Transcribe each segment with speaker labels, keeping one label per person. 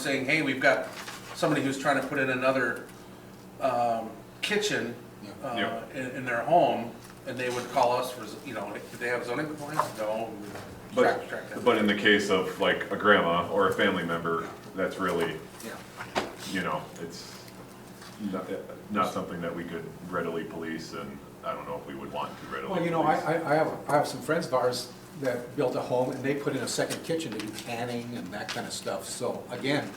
Speaker 1: saying, hey, we've got somebody who's trying to put in another um, kitchen uh,
Speaker 2: Yeah.
Speaker 1: in in their home, and they would call us for, you know, do they have zoning compliance? No. we would
Speaker 2: But,
Speaker 1: track- track that.
Speaker 2: but in the case of like a grandma or a family member, that's really,
Speaker 1: Yeah.
Speaker 2: you know, it's not, not something that we could readily police and I don't know if we would want to readily police.
Speaker 3: Well, you know, I, I, I have, I have some friends of ours that built a home and they put in a second kitchen to do canning and that kind of stuff. So again,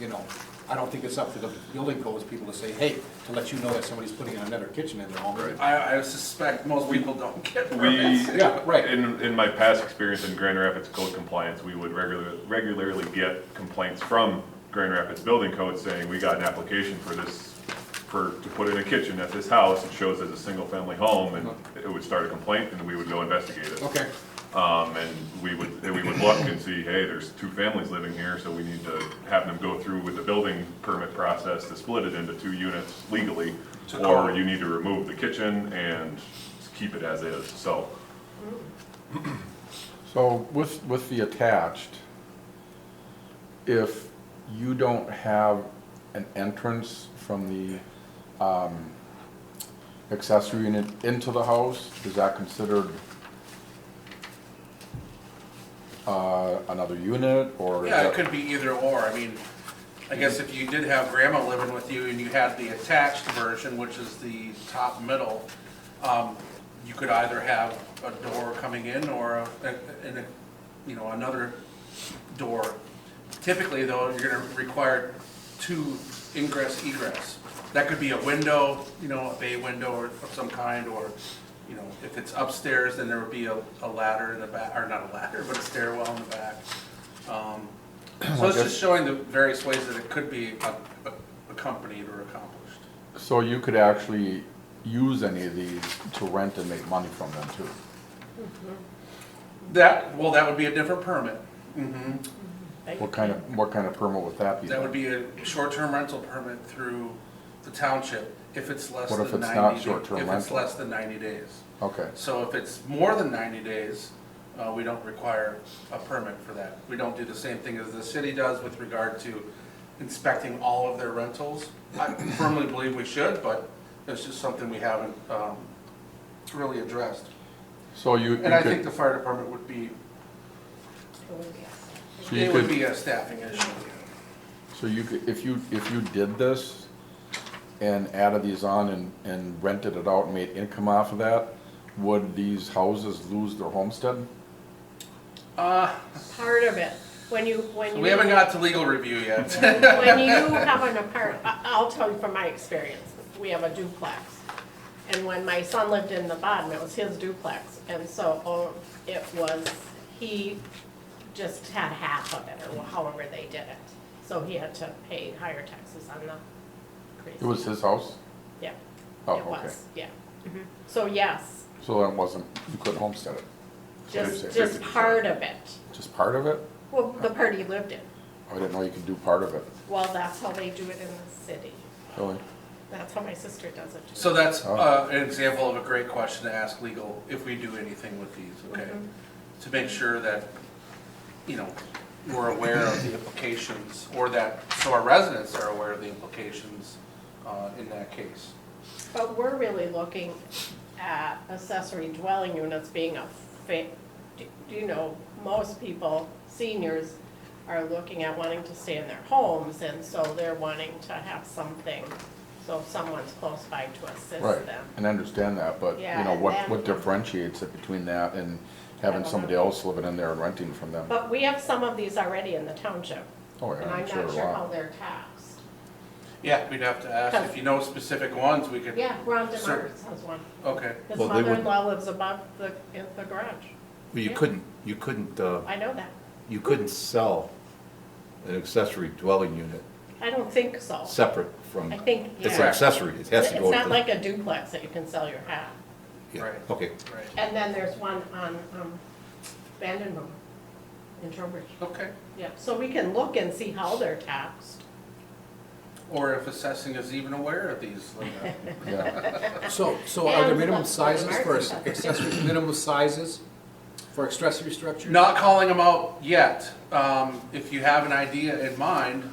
Speaker 3: you know, I don't think it's up to the building codes people to say, hey, to let you know that somebody's putting in another kitchen in their home.
Speaker 2: Right.
Speaker 1: I I suspect most people don't get permits.
Speaker 2: We,
Speaker 3: Yeah, right.
Speaker 2: in, in my past experience in Grand Rapids code compliance, we would regularly, regularly get complaints from Grand Rapids Building Code saying, we got an application for this, for, to put in a kitchen at this house, it shows as a single-family home, and
Speaker 3: Uh-huh.
Speaker 2: it would start a complaint, and we would go investigate it.
Speaker 3: Okay,
Speaker 2: Um, and we would, and we would look and see, hey, there's two families living here, so we need to have them go through with the building permit process to split it into two units legally.
Speaker 1: To
Speaker 2: Or
Speaker 1: code.
Speaker 2: you need to remove the kitchen and keep it as is, so.
Speaker 4: So with, with the attached, if you don't have an entrance from the um, accessory unit into the house, is that considered uh, another unit or? is
Speaker 1: Yeah, it
Speaker 4: that-
Speaker 1: could be either or. I mean, I guess if you did have grandma living with you and you had the attached version, which is the top middle, um, you could either have a door coming in or a, and a, you know, another door. Typically though, you're gonna require two ingress egress. That could be a window, you know, a bay window or of some kind, or, you know, if it's upstairs, then there would be a, a ladder in the back, or not a ladder, but a stairwell in the back. Um, So it's just showing the various ways that it could be ac- accompanied or accomplished.
Speaker 4: So you could actually use any of these to rent and make money from them too?
Speaker 1: That, well, that would be a different permit.
Speaker 4: What kind of, what kind of permit would that be?
Speaker 1: That would be a short-term rental permit through the township if it's less
Speaker 4: What if
Speaker 1: than
Speaker 4: it's
Speaker 1: ninety.
Speaker 4: not
Speaker 1: da-
Speaker 4: short-term
Speaker 1: If it's
Speaker 4: rental?
Speaker 1: less than ninety days.
Speaker 4: Okay,
Speaker 1: So if it's more than ninety days, uh, we don't require a permit for that. We don't do the same thing as the city does with regard to inspecting all of their rentals. I firmly believe we should, but it's just something we haven't, um, really addressed.
Speaker 4: so you. you
Speaker 1: And I
Speaker 4: could-
Speaker 1: think the fire department would be,
Speaker 4: so you
Speaker 1: it would
Speaker 4: could-
Speaker 1: be a staffing issue.
Speaker 4: So you could, if you, if you did this and added these on and, and rented it out and made income off of that, would these houses lose their homestead?
Speaker 1: Uh,
Speaker 5: part of it. When you, when you.
Speaker 1: we haven't got to legal review yet.
Speaker 5: When you have an apart, I- I'll tell you from my experience, we have a duplex. And when my son lived in the bottom, it was his duplex. And so oh, it was, he just had half of it or however they did it. So he had to pay higher taxes on the.
Speaker 4: It was his house,
Speaker 5: Yeah.
Speaker 4: Oh,
Speaker 5: It was,
Speaker 4: okay.
Speaker 5: Yeah. Mhm. So yes,
Speaker 4: so then it wasn't, you couldn't homestead it, So it's
Speaker 5: just,
Speaker 4: a
Speaker 5: just
Speaker 2: 50%.
Speaker 5: part of it.
Speaker 4: just part of it?
Speaker 5: Well, the part he lived in.
Speaker 4: I didn't know you could do part of it,
Speaker 5: Well, that's how they do it in the city.
Speaker 4: really.
Speaker 5: That's how my sister does it. too.
Speaker 1: So that's
Speaker 4: Oh.
Speaker 1: uh, an example of a great question to ask legal if we do anything with these, okay? To make sure that, you know, we're aware of the implications, or that, so our residents are aware of the implications uh, in that case.
Speaker 5: But we're really looking at accessory dwelling units being a fa, do do you know, most people, seniors, are looking at wanting to stay in their homes, and so they're wanting to have something, so someone's close by to
Speaker 4: Right,
Speaker 5: assist them.
Speaker 4: and I understand that, but you
Speaker 5: Yeah,
Speaker 4: know,
Speaker 5: and
Speaker 4: what,
Speaker 5: then-
Speaker 4: what differentiates it between that and
Speaker 5: I
Speaker 4: having
Speaker 5: don't
Speaker 4: somebody
Speaker 5: know.
Speaker 4: else living in there and renting from them?
Speaker 5: But we have some of these already in the township,
Speaker 4: Oh, yeah,
Speaker 5: and I'm
Speaker 4: a
Speaker 5: not sure
Speaker 4: lot.
Speaker 5: how they're taxed.
Speaker 1: Yeah, we'd have to ask, if you know specific ones, we could.
Speaker 5: Yeah, Ron
Speaker 1: Sure.
Speaker 5: DeMars has one.
Speaker 1: Okay,
Speaker 5: His
Speaker 6: Well, they wouldn't-
Speaker 5: mother-in-law lives above the, in the garage.
Speaker 6: Well, you
Speaker 5: Yeah.
Speaker 6: couldn't, you couldn't, uh,
Speaker 5: I know that.
Speaker 6: you couldn't sell an accessory dwelling unit
Speaker 5: I don't think so.
Speaker 6: separate from.
Speaker 5: I think, yeah.
Speaker 6: It's an accessory, it has to go.
Speaker 5: It's not
Speaker 6: to-
Speaker 5: like a duplex that you can sell your hat.
Speaker 6: yeah,
Speaker 1: Right.
Speaker 6: Okay,
Speaker 1: right,
Speaker 5: And then there's one on, um, Vandenboom in Trowbridge.
Speaker 1: okay.
Speaker 5: Yeah, so we can look and see how they're taxed.
Speaker 1: Or if assessing is even aware of these, like, uh,
Speaker 4: Yeah,
Speaker 3: so, so are there
Speaker 5: And
Speaker 3: minimum
Speaker 5: that's
Speaker 3: sizes for
Speaker 5: the market.
Speaker 3: accessory, minimum sizes for accessory structures?
Speaker 1: not calling them out yet. Um, If you have an idea in mind,